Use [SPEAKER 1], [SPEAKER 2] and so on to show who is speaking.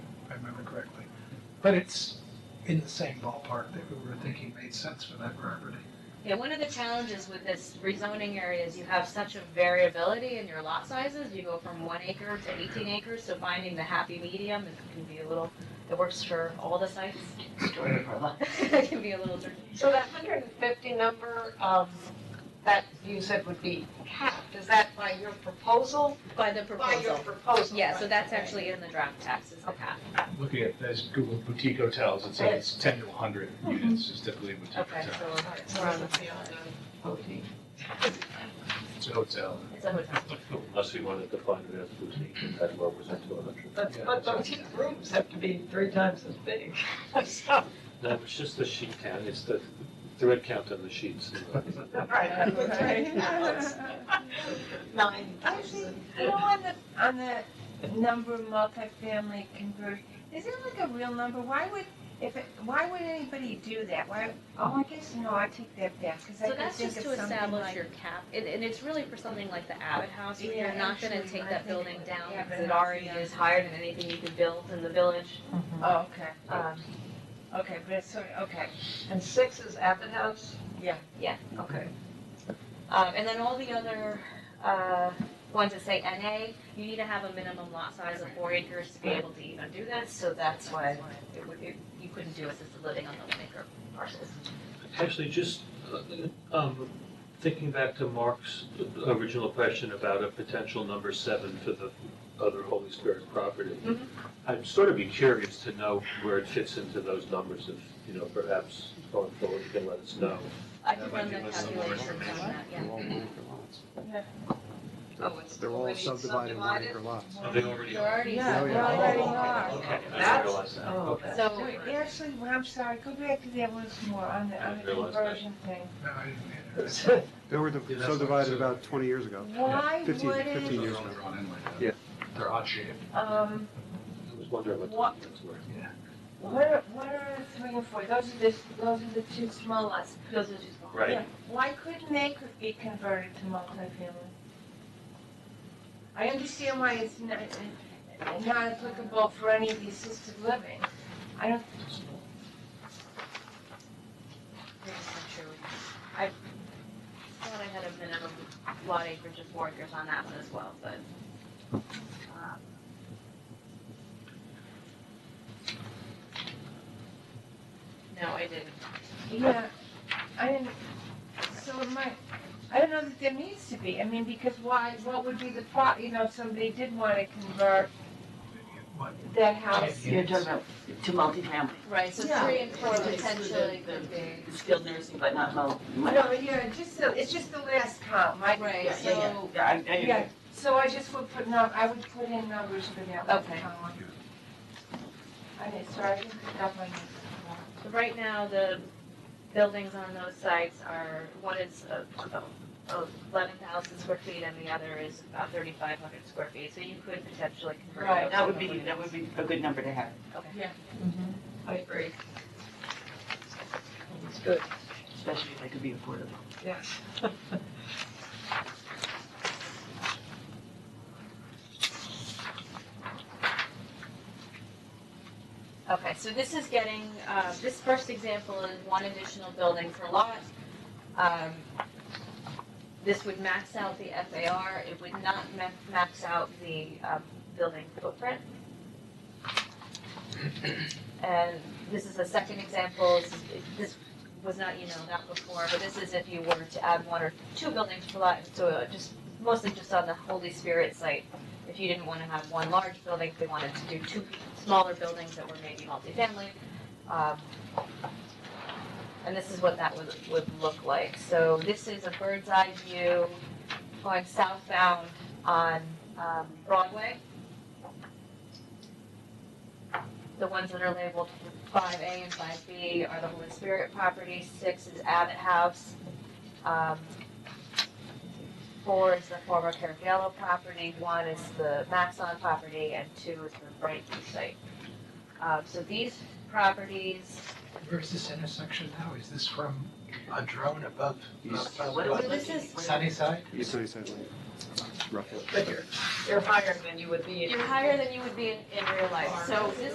[SPEAKER 1] remember correctly. But it's in the same ballpark that we were thinking made sense for that property.
[SPEAKER 2] Yeah, one of the challenges with this rezoning area is you have such a variability in your lot sizes. You go from one acre to eighteen acres, so finding the happy medium is, can be a little, it works for all the sites.
[SPEAKER 3] Story of our life.
[SPEAKER 2] It can be a little tricky.
[SPEAKER 4] So that hundred and fifty number, um, that you said would be capped, is that by your proposal?
[SPEAKER 2] By the
[SPEAKER 4] By your
[SPEAKER 2] proposal.
[SPEAKER 4] proposal?
[SPEAKER 2] Yeah, so
[SPEAKER 4] right,
[SPEAKER 2] that's
[SPEAKER 4] okay.
[SPEAKER 2] actually in the draft text, is the cap.
[SPEAKER 5] Looking at those Google boutique hotels, it says it's ten to hundred units is typically a boutique
[SPEAKER 2] Okay,
[SPEAKER 5] hotel.
[SPEAKER 2] so
[SPEAKER 4] All right, so we're on the field of voting.
[SPEAKER 5] It's a hotel.
[SPEAKER 2] it's a hotel.
[SPEAKER 6] Unless we wanted to find it as boutique, and that represents two hundred.
[SPEAKER 4] But, but those rooms have to be three times as big, so,
[SPEAKER 6] No, it's just the sheet count, it's the thread count on the sheets.
[SPEAKER 4] right, right. Nine
[SPEAKER 7] I think, you know, on the, on the number of multifamily conversion, is it like a real number? Why would, if, it why would anybody do that? Why, oh, I guess, no, I take that back, because I
[SPEAKER 2] So
[SPEAKER 7] could
[SPEAKER 2] that's
[SPEAKER 7] think
[SPEAKER 2] just
[SPEAKER 7] of
[SPEAKER 2] to
[SPEAKER 7] something
[SPEAKER 2] establish
[SPEAKER 7] like.
[SPEAKER 2] your cap, and, and it's really for something like the Abbott House, where you're
[SPEAKER 7] Yeah,
[SPEAKER 2] not gonna
[SPEAKER 7] actually,
[SPEAKER 2] take
[SPEAKER 7] I
[SPEAKER 2] that
[SPEAKER 7] think
[SPEAKER 2] building down,
[SPEAKER 7] Abbott
[SPEAKER 2] because it
[SPEAKER 7] House,
[SPEAKER 2] already
[SPEAKER 7] yeah.
[SPEAKER 2] is higher than anything you could build in the village.
[SPEAKER 7] Oh, okay,
[SPEAKER 2] Um,
[SPEAKER 7] okay, but it's, sort of- okay,
[SPEAKER 4] and six is Abbott House?
[SPEAKER 7] Yeah.
[SPEAKER 2] Yeah.
[SPEAKER 4] Okay.
[SPEAKER 2] Um, and then all the other, uh, ones that say NA, you need to have a minimum lot size of four acres to be able to even do this, so that's why it would, it, you couldn't do assisted living on the one acre parcels.
[SPEAKER 6] Actually, just, uh, um, thinking back to Mark's original question about a potential number seven for the other Holy Spirit property.
[SPEAKER 2] Mhm.
[SPEAKER 6] I'd sort of be curious to know where it fits into those numbers if, you know, perhaps going forward, you can let us know.
[SPEAKER 2] I could
[SPEAKER 5] might
[SPEAKER 2] run the
[SPEAKER 5] give us some more
[SPEAKER 2] calculations on
[SPEAKER 5] information.
[SPEAKER 2] that, yeah.
[SPEAKER 4] Oh, it's
[SPEAKER 8] They're all
[SPEAKER 4] already
[SPEAKER 8] subdivided one acre lots.
[SPEAKER 6] Are they already?
[SPEAKER 7] You're already,
[SPEAKER 8] Yeah,
[SPEAKER 7] yeah,
[SPEAKER 8] yeah.
[SPEAKER 7] we're already are.
[SPEAKER 6] Okay, I didn't
[SPEAKER 4] That's-
[SPEAKER 6] realize that.
[SPEAKER 4] Oh,
[SPEAKER 6] Okay.
[SPEAKER 4] that's
[SPEAKER 2] So-
[SPEAKER 4] doing it.
[SPEAKER 7] Actually, well, I'm sorry, go back to that once more, on the,
[SPEAKER 6] I
[SPEAKER 7] on the
[SPEAKER 6] realized that.
[SPEAKER 7] conversion thing.
[SPEAKER 1] No, I didn't mean it.
[SPEAKER 8] They were
[SPEAKER 5] Yeah, that's
[SPEAKER 8] subdivided
[SPEAKER 5] what-
[SPEAKER 8] about 20 years ago.
[SPEAKER 7] Why
[SPEAKER 8] 15 15
[SPEAKER 7] wouldn't,
[SPEAKER 8] years
[SPEAKER 5] They're
[SPEAKER 8] ago.
[SPEAKER 5] all drawn in like that.
[SPEAKER 8] Yeah.
[SPEAKER 5] They're odd shaped.
[SPEAKER 7] um,
[SPEAKER 6] I was wondering what. the
[SPEAKER 7] What-
[SPEAKER 6] difference were.
[SPEAKER 7] what are, what are three and four? Those are the, those are the two small lots.
[SPEAKER 2] Those are just.
[SPEAKER 6] Right.
[SPEAKER 7] Yeah, Why couldn't they could be converted to multifamily? I understand why it's not, not applicable for any of the assisted living. I don't,
[SPEAKER 2] Yeah, that's true. I thought I had a minimum lot acreage of four acres on that one as well, but. uh, No, I didn't.
[SPEAKER 7] yeah, I didn't, so it might, I don't know that there needs to be. I mean, because why, what would be the pro, you know, if somebody did want to convert
[SPEAKER 1] What?
[SPEAKER 7] that house.
[SPEAKER 3] You're talking about to multifamily,
[SPEAKER 2] Right,
[SPEAKER 7] so Yeah. three
[SPEAKER 2] and
[SPEAKER 3] four potentially could
[SPEAKER 2] be.
[SPEAKER 3] skilled nursing, but not mul. mul-
[SPEAKER 7] No, yeah, just, the- it's just the last column, right?
[SPEAKER 2] Right,
[SPEAKER 3] Yeah, yeah, yeah.
[SPEAKER 7] So,
[SPEAKER 3] Yeah, I- I-
[SPEAKER 7] Yeah, so I just would put, no, I would put in numbers for that. one
[SPEAKER 2] Okay.
[SPEAKER 7] column. I didn't, sorry, I didn't pick up on this.
[SPEAKER 2] So right now, the buildings on those sites are, one is uh, uh, 11,000 square feet and the other is about 3,500 square feet, so you could potentially convert.
[SPEAKER 7] Right,
[SPEAKER 2] those
[SPEAKER 3] That would
[SPEAKER 2] to
[SPEAKER 3] be,
[SPEAKER 2] living
[SPEAKER 3] that would be a good number to have.
[SPEAKER 4] I agree.
[SPEAKER 3] It's good. Especially if they could be affordable.
[SPEAKER 4] Yes.
[SPEAKER 2] Okay, so this is getting, uh, this first example is one additional building per lot. Um, This would max out the FAR, it would not ma- max out the uh, building footprint. And this is a second example, This is- this was not, you know, not before, but this is if you were to add one or two buildings per lot, so uh, just, mostly just on the Holy Spirit site. If you didn't want to have one large building, if we wanted to do two smaller buildings that were maybe multifamily. um, And this is what that would, would look like. So this is a bird's eye view going southbound on um, Broadway. The ones that are labeled five A and five B are the Holy Spirit property, six is Abbott House. um, Four is the former Caragiallo property, one is the Maxon property, and two is the Brighton site. Uh, so these properties,
[SPEAKER 1] Where's this intersection now? Is this from a drone above? uh,
[SPEAKER 8] East.
[SPEAKER 1] above-
[SPEAKER 3] What
[SPEAKER 2] so
[SPEAKER 3] was
[SPEAKER 1] above
[SPEAKER 2] this is,
[SPEAKER 1] Sunnyside?
[SPEAKER 8] East Sunnyside Lane, roughly.
[SPEAKER 4] But you're, you're higher than you would be. in-
[SPEAKER 2] you're higher than you would be in, in real life, so this